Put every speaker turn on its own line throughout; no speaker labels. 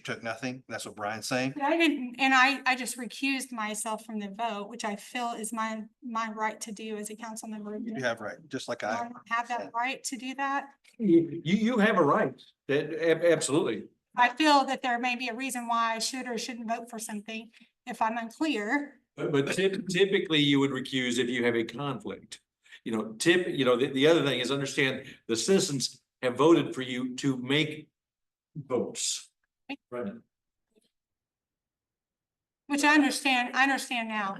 took nothing. That's what Brian's saying.
But I didn't, and I, I just recused myself from the vote, which I feel is my, my right to do as a council member.
You do
Do
have right, just like
I
I.
Have that right to do that.
You, you you have a right, that, ab- absolutely.
I feel that there may be a reason why I should or shouldn't vote for something if I'm unclear.
But but typ- typically you would recuse if you have a conflict. You know, tip, you know, the, the other thing is understand the citizens have voted for you to make votes. Right.
Which I understand, I understand now.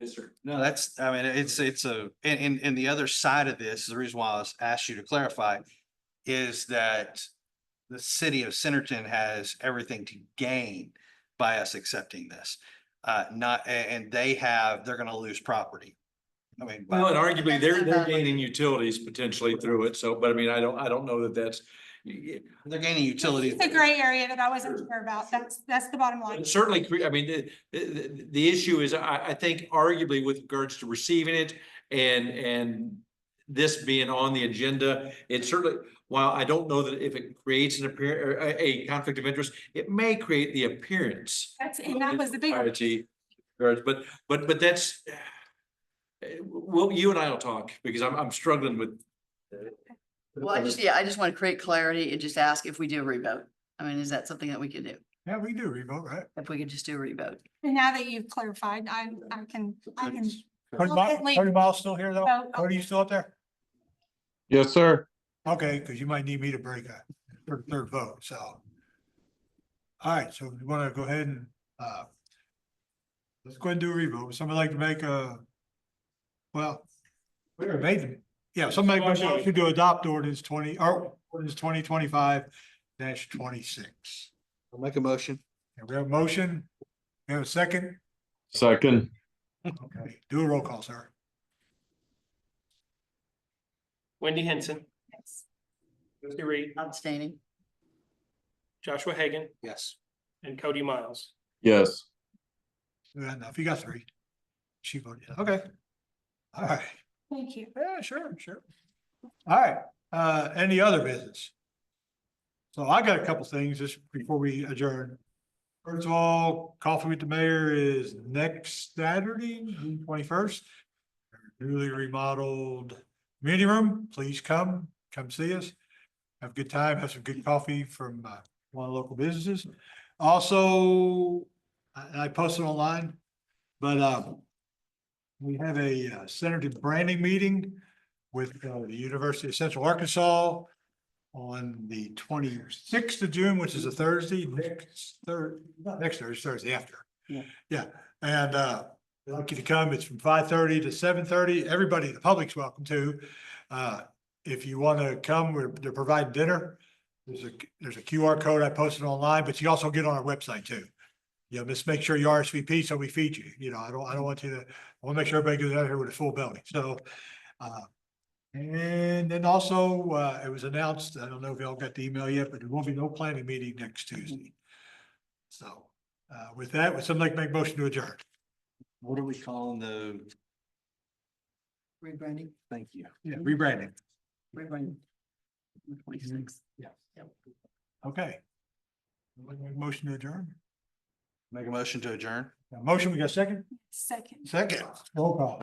Yes, sir.
No, that's, I mean, it's, it's a, and, and, and the other side of this, the reason why I was asked you to clarify is that the city of Centerton has everything to gain by us accepting this. Uh, not, a- and, they have, they're gonna lose property. I mean, by-
Well, and arguably, they're, they're gaining utilities potentially through it, so, but I mean, I don't, I don't know that that's.
they're gaining utilities.
It's a gray area that I wasn't sure about. That's, that's the bottom line.
But Certainly, cre- I mean, the, the, the- the issue is, I, I think arguably with regards to receiving it and, and this being on the agenda, it certainly, while I don't know that if it creates an appear, or a, a conflict of interest, it may create the appearance.
That's, and that
of
was the big, one.
impropriety, or- But, but, but that's, eh, well, you and I will talk because I'm, I'm struggling with. uh,
Well, I just, yeah, I just want to create clarity and just ask if we do a revote. I mean, is that something that we could do?
Yeah, we do remote, right?
If we could just do a revote?
and now that you've clarified, I, I can, I can
Cody
Well,
Miles,
at least-
Cody Miles still here though?
vote.
Cody, you still up there?
Yes, sir.
Okay, because you might need me to break a, for the third vote, so. All right, so we want to go ahead and, uh, let's go ahead and do a revote. Would Somebody like to make a, well, we already made them. Yeah, somebody make a motion to adopt ordinance twenty, or ordinance twenty twenty-five dash twenty-six.
I'll make a motion.
We have a motion, we have a second,
Second.
okay, do a roll call, sir.
Wendy Henson,
yes.
Josie Reed,
Abstaining.
Joshua Hagan,
Yes.
and Cody Miles.
Yes.
Yeah, enough. You got three. She voted, yes. okay. All right,
Thank you.
yeah, sure, sure. All right, uh, any other business? So I got a couple things just before we adjourn. First of all, coffee with the mayor is next Saturday, June twenty-first. Newly remodeled meeting room, please come, come see us. Have a good time, have some good coffee from, uh, one of the local businesses. Also, I, I posted online, but, um, we have a uh, Senator branding meeting with uh, the University of Central Arkansas on the twenty-sixth of June, which is a Thursday, next Thur, not next Thursday, Thursday after.
Yeah.
Yeah, and uh, we'd like you to come. It's from five thirty to seven thirty. Everybody, the public's welcome to. Uh, if you want to come, we're, they're providing dinner. There's a, there's a QR code I posted online, but you also get on our website too. You know, just make sure you RSVP so we feed you. You know, I don't, I don't want you to I want to make sure everybody goes out here with a full belly, so. uh, And then also, uh, it was announced, I don't know if y'all got the email yet, but there will be no planning meeting next Tuesday. So, uh, with that, would somebody like to make a motion to adjourn?
What are we calling the,
Rebranding,
thank you.
Yeah, rebranding.
rebranding. The 26th.
Okay. Somebody make a Motion to adjourn?
Make a motion to adjourn?
Got a Motion, we got a second?
Second.
Second. Roll call.